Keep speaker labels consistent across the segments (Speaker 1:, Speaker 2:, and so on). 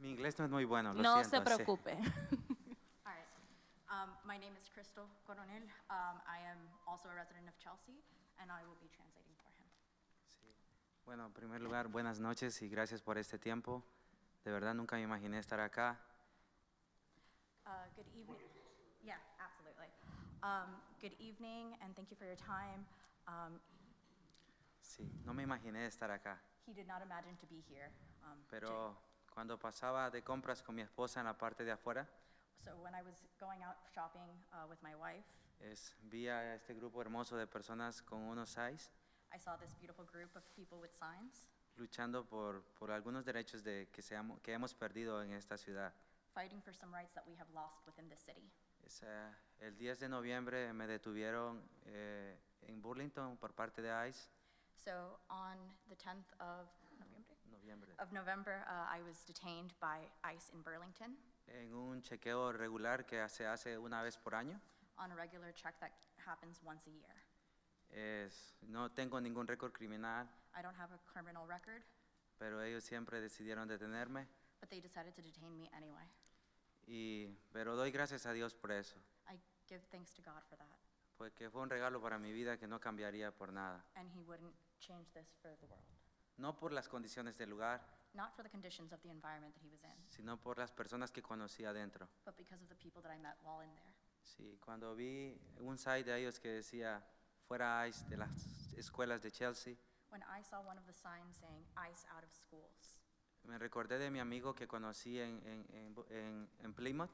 Speaker 1: Mi inglés no es muy bueno, lo
Speaker 2: No
Speaker 1: siento,
Speaker 2: se
Speaker 1: sí.
Speaker 2: preocupe.
Speaker 3: All right. Um, my name is Crystal Coronel. Um, I am also a resident of Chelsea, and I will be translating for him.
Speaker 1: Bueno, en primer lugar, buenas noches y gracias por este tiempo. De verdad nunca me imaginé estar acá.
Speaker 3: Uh, good evening. Yeah, absolutely. Um, good evening, and thank you for your time. Um,
Speaker 1: Sí, no me imaginé estar acá.
Speaker 3: he did not imagine to be here. Um, today.
Speaker 1: Pero cuando pasaba de compras con mi esposa en la parte de afuera,
Speaker 3: so when I was going out shopping uh, with my wife,
Speaker 1: es, vi a este grupo hermoso de personas con unos SAIS
Speaker 3: I saw this beautiful group of people with signs
Speaker 1: luchando por, por algunos derechos de, que, seamos- que hemos perdido en esta ciudad.
Speaker 3: fighting for some rights that we have lost within the city.
Speaker 1: Es, eh, el 10 de noviembre me detuvieron eh, en Burlington por parte de ICE.
Speaker 3: So on the 10th of November,
Speaker 1: Noviembre.
Speaker 3: of November, uh, I was detained by ICE in Burlington
Speaker 1: en un chequeo regular que se hace una vez por año.
Speaker 3: on a regular check that happens once a year.
Speaker 1: Es- no tengo ningún récord criminal,
Speaker 3: I don't have a criminal record,
Speaker 1: pero ellos siempre decidieron detenerme.
Speaker 3: but they decided to detain me anyway.
Speaker 1: Y, pero doy gracias a Dios por eso,
Speaker 3: I give thanks to God for that,
Speaker 1: porque fue un regalo para mi vida que no cambiaría por nada.
Speaker 3: and He wouldn't change this for the world.
Speaker 1: No por las condiciones del lugar,
Speaker 3: Not for the conditions of the environment that He was in,
Speaker 1: sino por las personas que conocí adentro.
Speaker 3: but because of the people that I met while in there.
Speaker 1: Sí, cuando vi un site de ellos que decía fuera ICE de las escuelas de Chelsea,
Speaker 3: When I saw one of the signs saying ICE out of schools,
Speaker 1: me recordé de mi amigo que conocí en, en- en Bu- en- en Plymouth.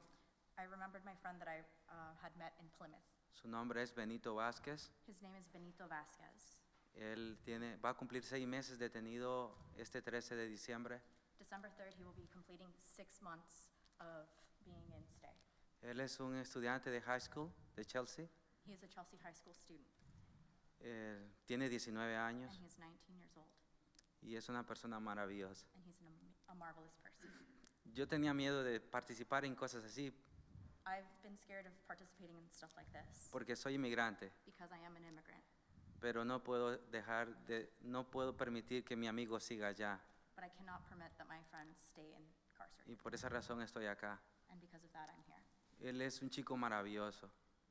Speaker 3: I remembered my friend that I uh, had met in Plymouth.
Speaker 1: Su nombre es Benito Vázquez.
Speaker 3: His name is Benito Vasquez.
Speaker 1: Él tiene, va a cumplir seis meses detenido este 13 de diciembre.
Speaker 3: December 3rd, he will be completing six months of being in stay.
Speaker 1: Él es un estudiante de high school de Chelsea.
Speaker 3: He is a Chelsea High School student,
Speaker 1: Eh, tiene 19
Speaker 3: and
Speaker 1: años
Speaker 3: he is 19 years old,
Speaker 1: y es una persona maravillosa.
Speaker 3: and he's an am- a marvelous person.
Speaker 1: Yo tenía miedo de participar en cosas así
Speaker 3: I've been scared of participating in stuff like this
Speaker 1: porque soy inmigrante,
Speaker 3: because I am an immigrant,
Speaker 1: pero no puedo dejar de, no puedo permitir que mi amigo siga allá
Speaker 3: but I cannot permit that my friends stay
Speaker 1: y
Speaker 3: incarcerated,
Speaker 1: por esa razón estoy acá.
Speaker 3: and because of that, I'm here.
Speaker 1: Él es un chico maravilloso.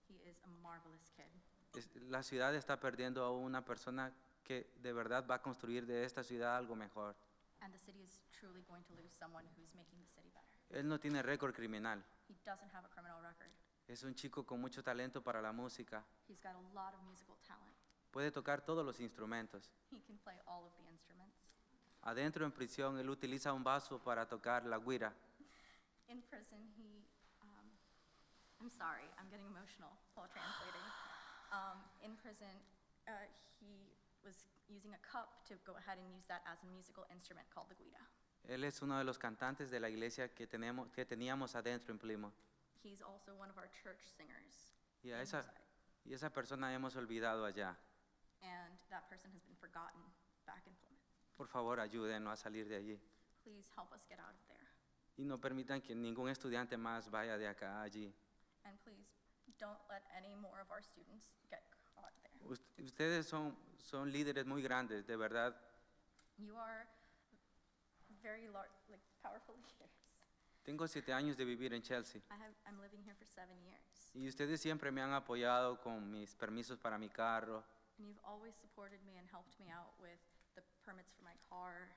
Speaker 3: He is a marvelous kid.
Speaker 1: Es- la ciudad está perdiendo a una persona que de verdad va a construir de esta ciudad algo mejor.
Speaker 3: And the city is truly going to lose someone who's making the city better.
Speaker 1: Él no tiene récord criminal.
Speaker 3: He doesn't have a criminal record.
Speaker 1: Es un chico con mucho talento para la música.
Speaker 3: He's got a lot of musical talent.
Speaker 1: Puede tocar todos los instrumentos.
Speaker 3: He can play all of the instruments.
Speaker 1: Adentro en prisión, él utiliza un vaso para tocar la guira.
Speaker 3: In prison, he, um, I'm sorry, I'm getting emotional while translating. Um, in prison, uh, he was using a cup to go ahead and use that as a musical instrument called the guida.
Speaker 1: Él es uno de los cantantes de la iglesia que, tenemos, que teníamos adentro en Plymouth.
Speaker 3: He's also one of our church singers.
Speaker 1: Y a
Speaker 3: in
Speaker 1: esa,
Speaker 3: Mosaic,
Speaker 1: y esa persona hemos olvidado allá.
Speaker 3: And that person has been forgotten back in Plymouth.
Speaker 1: Por favor, ayúdenlo a salir de allí.
Speaker 3: Please help us get out of there.
Speaker 1: Y no permitan que ningún estudiante más vaya de acá a allí.
Speaker 3: And please, don't let any more of our students get caught there.
Speaker 1: Ust- Ustedes son, son líderes muy grandes, de verdad.
Speaker 3: You are very lar- like powerful leaders.
Speaker 1: Tengo siete años de vivir en Chelsea.
Speaker 3: I have, I'm living here for seven years.
Speaker 1: Y ustedes siempre me han apoyado con mis permisos para mi carro.
Speaker 3: And you've always supported me and helped me out with the permits for my car,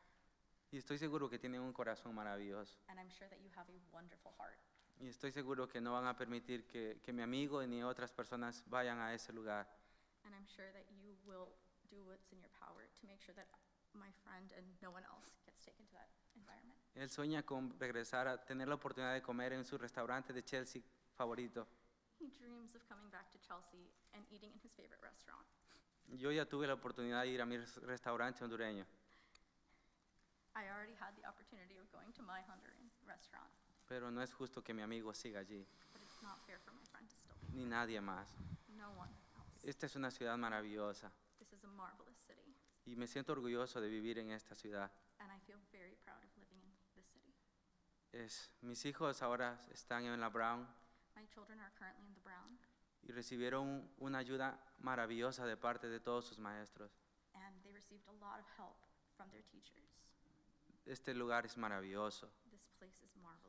Speaker 1: Y estoy seguro que tienen un corazón maravilloso.
Speaker 3: and I'm sure that you have a wonderful heart.
Speaker 1: Y estoy seguro que no van a permitir que, que mi amigo ni otras personas vayan a ese lugar.
Speaker 3: And I'm sure that you will do what's in your power to make sure that my friend and no one else gets taken to that environment.
Speaker 1: Él sueña con regresar a tener la oportunidad de comer en su restaurante de Chelsea favorito.
Speaker 3: He dreams of coming back to Chelsea and eating in his favorite restaurant.
Speaker 1: Yo ya tuve la oportunidad de ir a mi res- restaurante hondureño,
Speaker 3: I already had the opportunity of going to my Honduran restaurant,
Speaker 1: pero no es justo que mi amigo siga allí,
Speaker 3: but it's not fair for my friend to still
Speaker 1: ni nadie más.
Speaker 3: be. No one else.
Speaker 1: Esta es una ciudad maravillosa
Speaker 3: This is a marvelous city,
Speaker 1: y me siento orgulloso de vivir en esta ciudad.
Speaker 3: and I feel very proud of living in this city.
Speaker 1: Es, mis hijos ahora están en la Brown
Speaker 3: My children are currently in the Brown,
Speaker 1: y recibieron una ayuda maravillosa de parte de todos sus maestros.
Speaker 3: and they received a lot of help from their teachers.
Speaker 1: Este lugar es maravilloso.
Speaker 3: This place is marvelous.